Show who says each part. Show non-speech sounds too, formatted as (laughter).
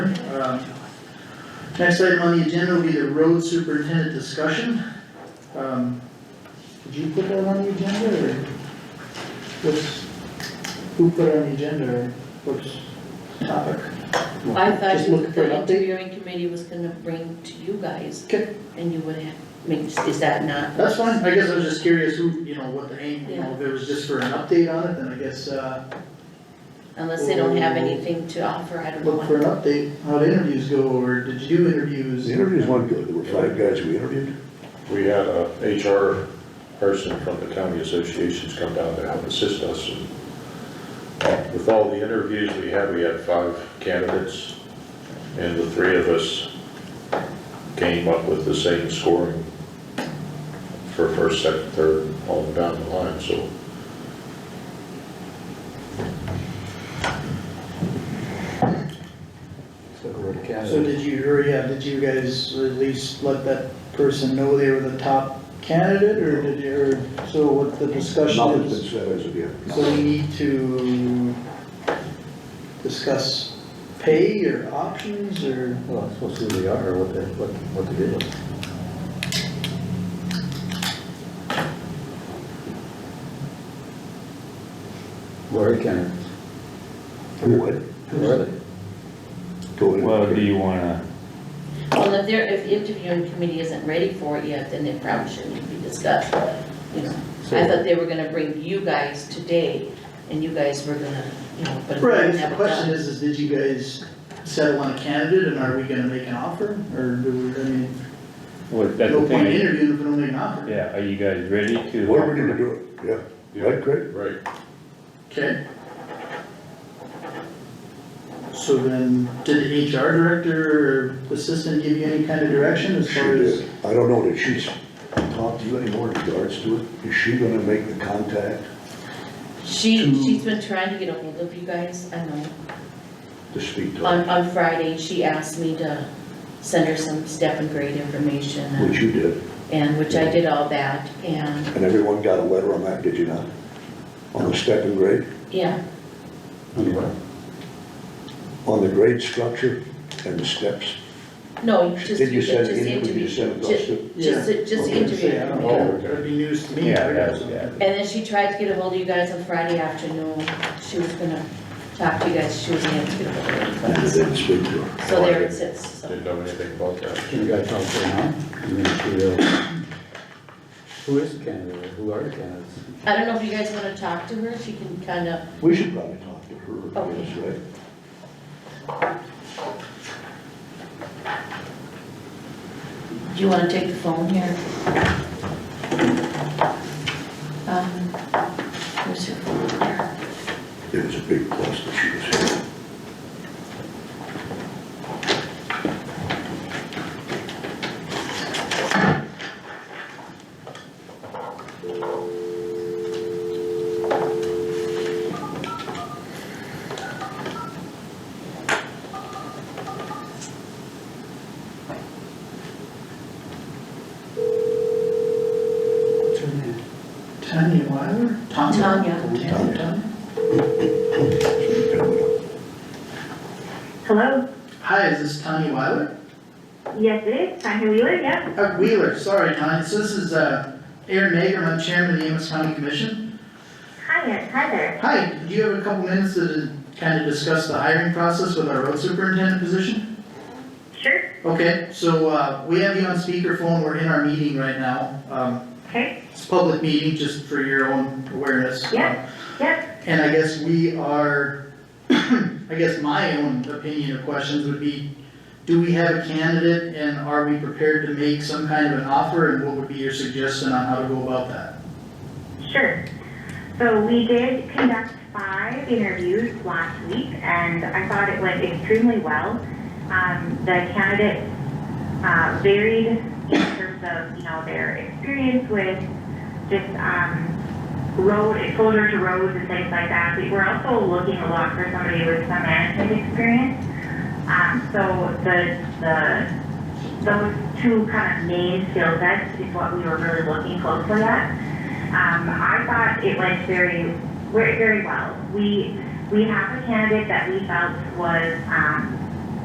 Speaker 1: Um, Next item on the agenda will be the road superintendent discussion. Um, Did you put that on the agenda or? What's, who put it on the agenda or what's the topic?
Speaker 2: I thought
Speaker 1: Just
Speaker 2: you-
Speaker 1: looking for
Speaker 2: the
Speaker 1: an update.
Speaker 2: interviewing committee was gonna bring to you guys.
Speaker 1: Okay.
Speaker 2: And you would have, I mean, is is that not?
Speaker 1: That's fine, I guess I was just curious who, you know, what the aim, you know, if it was just for an update on it, then I guess, uh,
Speaker 2: Unless they don't have anything to offer, I don't know.
Speaker 1: look for an update, how the interviews go, or did you do interviews?
Speaker 3: The interviews went good, there were five guys we interviewed.
Speaker 4: We had a HR person from the county associations come down to help assist us. and, uh, With all the interviews we had, we had five candidates, and the three of us came up with the same scoring for first, second, third, all down the line, so.
Speaker 1: So did you, or yeah, did you guys at least let that person know they were the top candidate, or did you, or, so what the discussion
Speaker 3: Nothing's
Speaker 1: is?
Speaker 3: been said as of yet.
Speaker 1: So we need to discuss pay or options, or?
Speaker 5: Well, it's supposed to be who they are, or what they, what, what they do. Where can,
Speaker 3: What?
Speaker 5: where are they?
Speaker 3: Totally.
Speaker 6: Well, do you wanna,
Speaker 2: Well, if they're, if the interviewing committee isn't ready for it yet, then it probably shouldn't be discussed, you know. I
Speaker 5: So,
Speaker 2: thought they were gonna bring you guys today, and you guys were gonna, you know, but. if they
Speaker 1: Right,
Speaker 2: have
Speaker 1: the
Speaker 2: it
Speaker 1: question
Speaker 2: done-
Speaker 1: is, is did you guys settle on a candidate, and are we gonna make an offer, or do we, I mean,
Speaker 6: what, that's
Speaker 1: no
Speaker 6: the
Speaker 1: point
Speaker 6: thing,
Speaker 1: interviewing if we don't make an offer?
Speaker 6: yeah, are you guys ready to?
Speaker 3: Whatever we need to do it, yeah, right, Craig?
Speaker 4: Right.
Speaker 1: Okay. So then, did the HR director or assistant give you any kind of direction as
Speaker 3: She
Speaker 1: far as?
Speaker 3: did, I don't know, did she talk to you anymore in regards to it? Is she gonna make the contact
Speaker 2: She,
Speaker 1: to-
Speaker 2: she's been trying to get ahold of you guys, I know.
Speaker 3: to speak to her?
Speaker 2: On, on Friday, she asked me to send her some step and grade information, and-
Speaker 3: Which you did,
Speaker 2: and, which I did all that, and,
Speaker 3: and everyone got a letter on that, did you not? On the step and grade,
Speaker 2: yeah,
Speaker 3: on the grade structure and the steps.
Speaker 2: no, just,
Speaker 3: Did you
Speaker 2: just
Speaker 3: send it in, did
Speaker 2: interview.
Speaker 3: you send it to us
Speaker 2: Just,
Speaker 3: too?
Speaker 2: just,
Speaker 1: Okay,
Speaker 2: just
Speaker 1: so
Speaker 2: interview.
Speaker 1: yeah, I don't
Speaker 2: yeah.
Speaker 1: know, That'd be news to me.
Speaker 6: Yeah, that's, yeah.
Speaker 2: And then she tried to get ahold of you guys on Friday afternoon, she was gonna talk to you guys, she was gonna get ahold
Speaker 3: And
Speaker 2: of
Speaker 3: you
Speaker 2: you guys.
Speaker 3: didn't speak to her.
Speaker 2: So there it sits, so,
Speaker 4: Didn't know anything about that.
Speaker 5: can you guys tell us right now? I mean, she, uh, who is the candidate, who are the candidates?
Speaker 2: I don't know if you guys wanna talk to her, she can kinda,
Speaker 3: We should probably talk to her, I
Speaker 2: Okay.
Speaker 3: guess, right?
Speaker 2: do you wanna take the phone here? Um, where's your phone there?
Speaker 3: It was a big plus that she was here.
Speaker 1: Tanya Wyler?
Speaker 2: Tanya.
Speaker 1: Tanya, Tanya.
Speaker 3: So you come with her.
Speaker 7: Hello?
Speaker 1: Hi, is this Tanya Wyler?
Speaker 7: Yes, it is. Can I hear you? Yeah.
Speaker 1: Uh, Wheeler, sorry, Tanya, so this is, uh, Aaron Nager, I'm chairman of the Amos County Commission.
Speaker 7: Hi, there. hi there.
Speaker 1: Hi, do you have a couple minutes to kind of discuss the hiring process with our road superintendent position?
Speaker 7: Sure.
Speaker 1: Okay, so, uh, we have you on speakerphone, we're in our meeting right now, um,
Speaker 7: Okay.
Speaker 1: it's a public meeting, just for your own awareness. Um,
Speaker 7: Yeah. Yep.
Speaker 1: And I guess we are, (clears throat) I guess my own opinion of questions would be, do we have a candidate and are we prepared to make some kind of an offer? And what would be your suggestion on how to go about that?
Speaker 7: Sure. So we did conduct five interviews last week, and I thought it went extremely well. Um, the candidates uh, varied in terms of you know their experience with just um, road exposure to roads and things like that. We were also looking a lot for somebody with some management experience. Um, so the the those two kind of main skill sets is what we were really looking closely at. Um, I thought it went very, very, very well. We, we have a candidate that we felt was, um,